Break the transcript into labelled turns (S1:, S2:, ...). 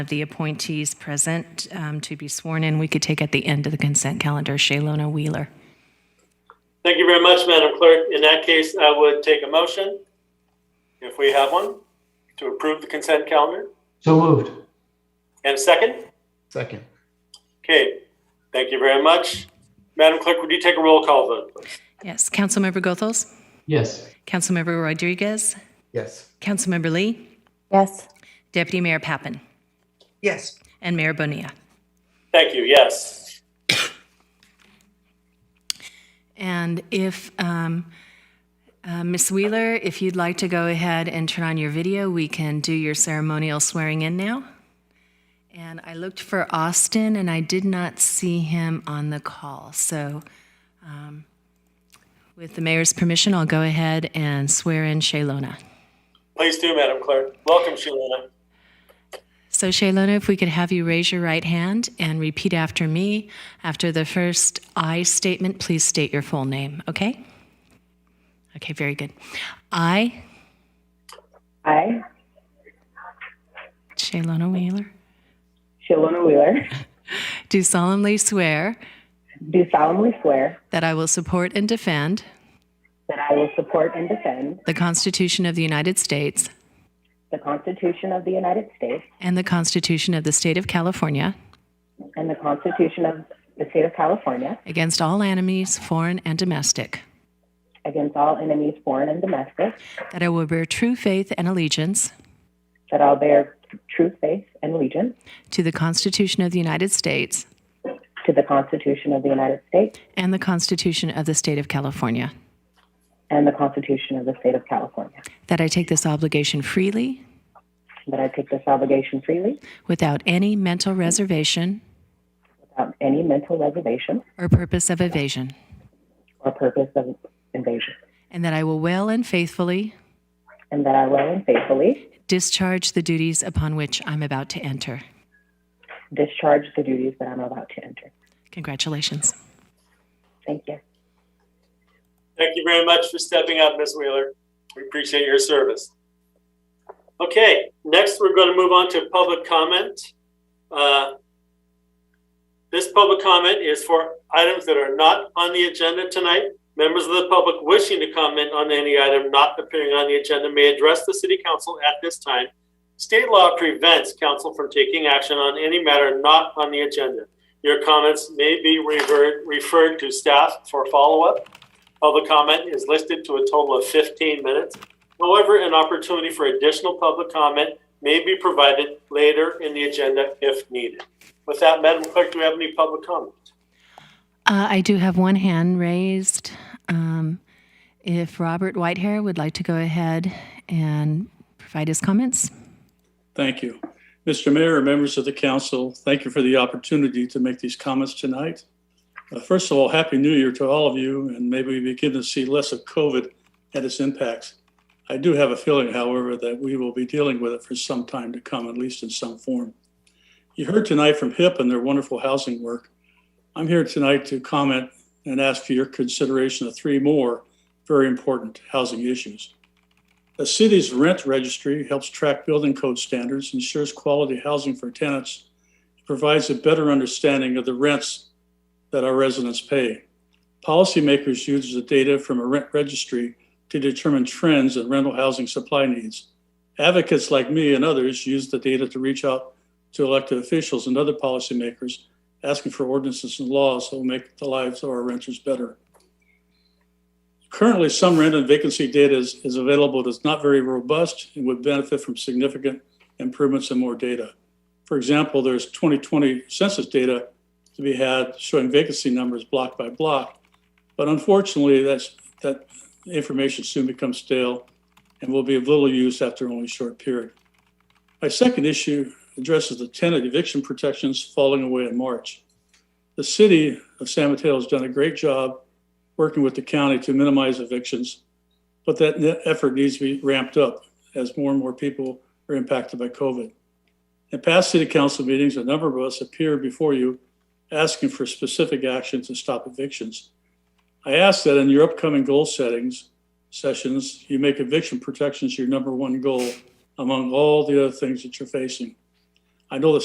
S1: of the appointees present um, to be sworn in, we could take at the end of the consent calendar, Shaylona Wheeler.
S2: Thank you very much, Madam Clerk. In that case, I would take a motion, if we have one, to approve the consent calendar.
S3: So moved.
S2: And a second?
S3: Second.
S2: Okay, thank you very much. Madam Clerk, would you take a roll call vote, please?
S1: Yes, Councilmember Gothels,
S3: Yes.
S1: Councilmember Rodriguez,
S3: Yes.
S1: Councilmember Lee,
S4: Yes.
S1: Deputy Mayor Pappen,
S5: Yes.
S1: and Mayor Bonilla.
S2: Thank you, yes.
S1: And if, um, uh, Ms. Wheeler, if you'd like to go ahead and turn on your video, we can do your ceremonial swearing in now. And I looked for Austin, and I did not see him on the call. So um, with the mayor's permission, I'll go ahead and swear in Shaylona.
S2: Please do, Madam Clerk. Welcome, Shalana.
S1: So, Shaylona, if we could have you raise your right hand and repeat after me. After the first I statement, please state your full name, okay? Okay, very good. I,
S4: I,
S1: Shaylona Wheeler,
S4: Shalona Wheeler,
S1: do solemnly swear
S4: do solemnly swear
S1: that I will support and defend
S4: that I will support and defend
S1: the Constitution of the United States
S4: the Constitution of the United States
S1: and the Constitution of the State of California
S4: and the Constitution of the State of California
S1: against all enemies, foreign and domestic,
S4: against all enemies, foreign and domestic,
S1: that I will bear true faith and allegiance
S4: that I'll bear true faith and allegiance
S1: to the Constitution of the United States
S4: to the Constitution of the United States
S1: and the Constitution of the State of California.
S4: and the Constitution of the State of California,
S1: That I take this obligation freely,
S4: that I take this obligation freely
S1: without any mental reservation
S4: without any mental reservation
S1: or purpose of evasion,
S4: or purpose of invasion,
S1: and that I will well and faithfully
S4: and that I will and faithfully
S1: discharge the duties upon which I'm about to enter.
S4: discharge the duties that I'm about to enter.
S1: Congratulations.
S4: Thank you.
S2: Thank you very much for stepping up, Ms. Wheeler. We appreciate your service. Okay, next we're going to move on to public comment. Uh, This public comment is for items that are not on the agenda tonight. Members of the public wishing to comment on any item not appearing on the agenda may address the city council at this time. State law prevents council from taking action on any matter not on the agenda. Your comments may be revert- referred to staff for follow-up. Public comment is listed to a total of 15 minutes. However, an opportunity for additional public comment may be provided later in the agenda if needed. With that, Madam Clerk, do we have any public comment?
S1: Uh, I do have one hand raised. Um, if Robert Whitehair would like to go ahead and provide his comments.
S6: Thank you. Mr. Mayor, and members of the council, thank you for the opportunity to make these comments tonight. Uh, First of all, Happy New Year to all of you, and maybe we begin to see less of COVID and its impacts. I do have a feeling, however, that we will be dealing with it for some time to come, at least in some form. You heard tonight from HIP and their wonderful housing work. I'm here tonight to comment and ask for your consideration of three more very important housing issues. The city's rent registry helps track building code standards, ensures quality housing for tenants, and provides a better understanding of the rents that our residents pay. Policymakers use the data from a rent registry to determine trends in rental housing supply needs. Advocates like me and others use the data to reach out to elected officials and other policymakers, asking for ordinances and laws that will make the lives of our renters better. Currently, some rent and vacancy data is, is available that's not very robust and would benefit from significant improvements and more data. For example, there's 2020 census data to be had showing vacancy numbers block by block. But unfortunately, that's, that information soon becomes stale and will be of little use after only a short period. My second issue addresses the tenant eviction protections falling away in March. The city of San Mateo has done a great job working with the county to minimize evictions, but that ne- effort needs to be ramped up as more and more people are impacted by COVID. In past city council meetings, a number of us appeared before you asking for specific action to stop evictions. I ask that in your upcoming goal settings sessions, you make eviction protections your number one goal among all the other things that you're facing. I know the